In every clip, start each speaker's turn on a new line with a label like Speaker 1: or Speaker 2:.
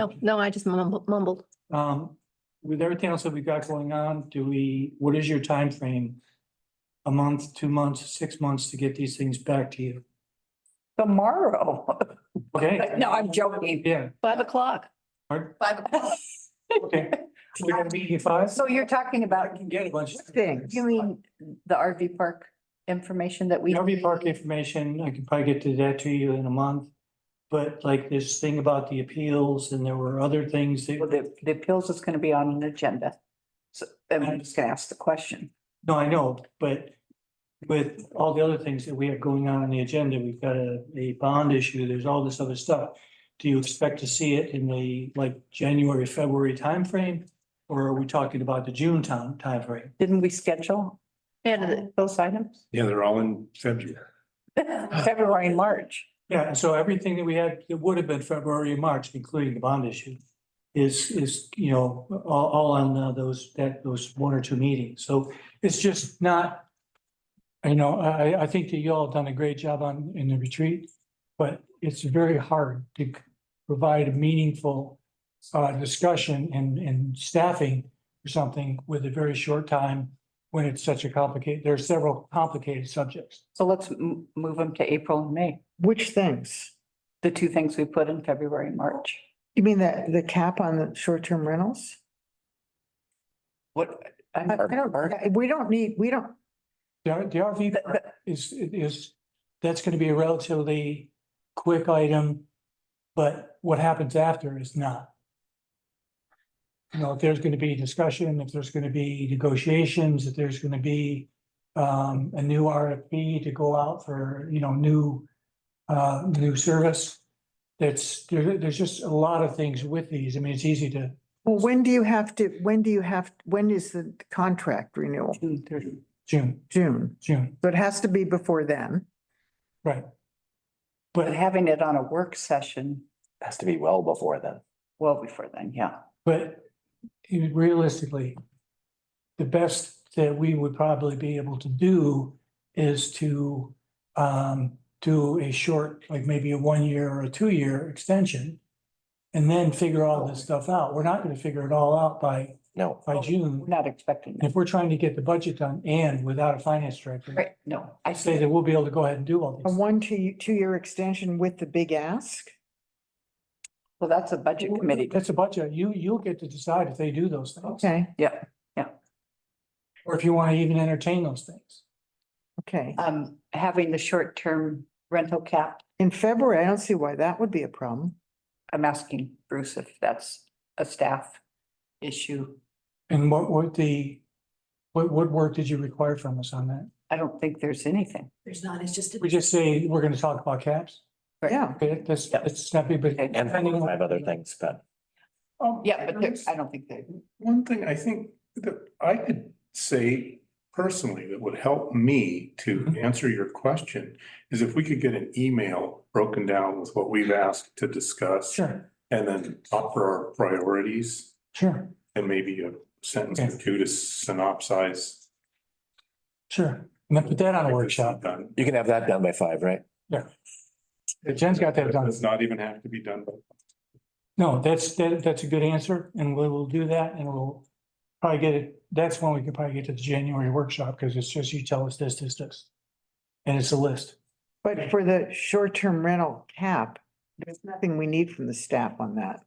Speaker 1: Oh,
Speaker 2: No, no, I just mumbled, mumbled.
Speaker 3: Um, with everything else that we've got going on, do we, what is your time frame? A month, two months, six months to get these things back to you?
Speaker 1: Tomorrow.
Speaker 3: Okay,
Speaker 1: No, I'm joking.
Speaker 3: yeah,
Speaker 2: Five o'clock.
Speaker 3: Alright.
Speaker 2: Five o'clock.
Speaker 3: okay. We're gonna meet you five?
Speaker 1: So you're talking
Speaker 3: I
Speaker 1: about
Speaker 3: can get a bunch of
Speaker 1: things. You mean the RV park information that we.
Speaker 3: RV park information, I can probably get to that to you in a month. But like this thing about the appeals and there were other things
Speaker 1: Well,
Speaker 3: that,
Speaker 1: The, the appeals is going to be on an agenda. So I'm just going to ask the question.
Speaker 3: no, I know, but with all the other things that we have going on on the agenda, we've got a, a bond issue, there's all this other stuff. Do you expect to see it in the like January, February timeframe? Or are we talking about the June time, timeframe?
Speaker 1: Didn't we schedule
Speaker 2: And
Speaker 1: those items?
Speaker 4: Yeah, they're all in February.
Speaker 1: February, and March.
Speaker 3: Yeah, and so everything that we had, it would have been February and March, including the bond issue, is, is, you know, all, all on uh, those, that, those one or two meetings. So it's just not, you know, I, I- I think that you all done a great job on, in the retreat, but it's very hard to c- provide a meaningful uh, discussion and, and staffing or something with a very short time when it's such a complicated, there are several complicated subjects.
Speaker 1: So let's m- move them to April and May,
Speaker 5: Which things?
Speaker 1: the two things we put in February and March.
Speaker 5: You mean the, the cap on the short-term rentals?
Speaker 1: What? I'm-
Speaker 5: I I don't, I- we don't need, we don't,
Speaker 3: The R- the RV
Speaker 1: But-
Speaker 3: park is, is, that's gonna be a relatively quick item, but what happens after is not. You know, if there's gonna be discussion, if there's gonna be negotiations, if there's gonna be um, a new RFP to go out for, you know, new uh, new service, that's, there, there's just a lot of things with these. I mean, it's easy to,
Speaker 5: well, when do you have to, when do you have, when is the contract renewal?
Speaker 1: June 30.
Speaker 3: June,
Speaker 5: June.
Speaker 3: June,
Speaker 5: So it has to be before then.
Speaker 3: right?
Speaker 1: But
Speaker 3: But
Speaker 1: having it on a work session,
Speaker 6: has to be well before then.
Speaker 1: well before then, yeah.
Speaker 3: But realistically, the best that we would probably be able to do is to um, do a short, like maybe a one-year or a two-year extension. And then figure all this stuff out. We're not gonna figure it all out by,
Speaker 6: No,
Speaker 3: by
Speaker 1: We're
Speaker 3: June.
Speaker 1: not expecting that.
Speaker 3: If we're trying to get the budget done and without a finance director,
Speaker 1: Right, no, I
Speaker 3: I say
Speaker 1: see.
Speaker 3: that we'll be able to go ahead and do all
Speaker 5: A
Speaker 3: these.
Speaker 5: one, two, two-year extension with the big ask?
Speaker 1: Well, that's a budget committee.
Speaker 3: That's a budget. You, you'll get to decide if they do those things,
Speaker 5: Okay,
Speaker 1: Yeah,
Speaker 3: or if you wanna even entertain those things.
Speaker 5: okay.
Speaker 1: um, having the short-term rental cap,
Speaker 5: In February, I don't see why that would be a problem.
Speaker 1: I'm asking Bruce if that's a staff issue.
Speaker 3: And what, what the, what, what work did you require from us on that?
Speaker 1: I don't think there's anything.
Speaker 2: There's not, it's just.
Speaker 3: We just say we're gonna talk about caps,
Speaker 5: Yeah,
Speaker 3: okay, that's, that's snappy, but.
Speaker 1: Okay.
Speaker 6: and
Speaker 3: depending on-
Speaker 6: five other things, but
Speaker 1: Yeah, but there- I don't think they,
Speaker 4: Um, One thing I think that I could say personally that would help me to
Speaker 3: Mm-hmm.
Speaker 4: answer your question is if we could get an email broken down with what we've asked to discuss
Speaker 3: Sure,
Speaker 4: and then offer our priorities
Speaker 3: sure,
Speaker 4: and maybe a sentence or two to synopsize.
Speaker 3: sure. And then put that on a workshop.
Speaker 4: Done.
Speaker 6: you can have that done by five, right?
Speaker 3: Jen's got that done.
Speaker 4: Does not even have to be done by
Speaker 3: No, that's, that, that's a good answer and we will do that and we'll probably get it. That's when we could probably get to the January workshop because it's just you tell us this, this, this. And it's a list.
Speaker 5: but for the short-term rental cap, there's nothing we need from the staff on that.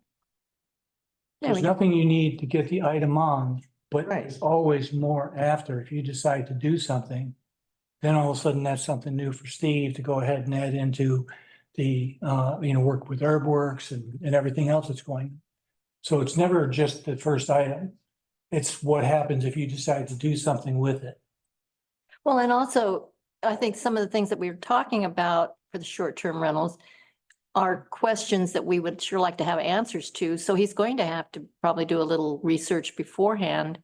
Speaker 3: There's nothing you need to get the item on, but
Speaker 5: Right.
Speaker 3: there's always more after. If you decide to do something, then all of a sudden that's something new for Steve to go ahead and add into the, uh, you know, work with Herbworks and, and everything else that's going. So it's never just the first item. It's what happens if you decide to do something with it.
Speaker 2: Well, and also, I think some of the things that we were talking about for the short-term rentals are questions that we would sure like to have answers to. So he's going to have to probably do a little research beforehand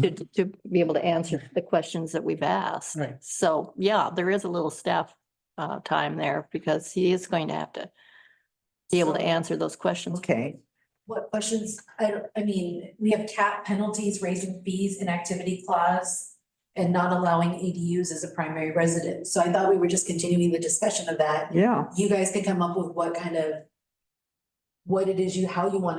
Speaker 2: to, to be able to answer the questions that we've asked.
Speaker 3: Right.
Speaker 2: So, yeah, there is a little staff, uh, time there because he is going to have to be able to answer those questions.
Speaker 5: Okay,
Speaker 7: What questions, I, don't- I mean, we have cap penalties, raising fees, inactivity clause, and not allowing ADUs as a primary residence. So I thought we were just continuing the discussion of that.
Speaker 5: yeah,
Speaker 7: You guys can come up with what kind of what it is you, how you want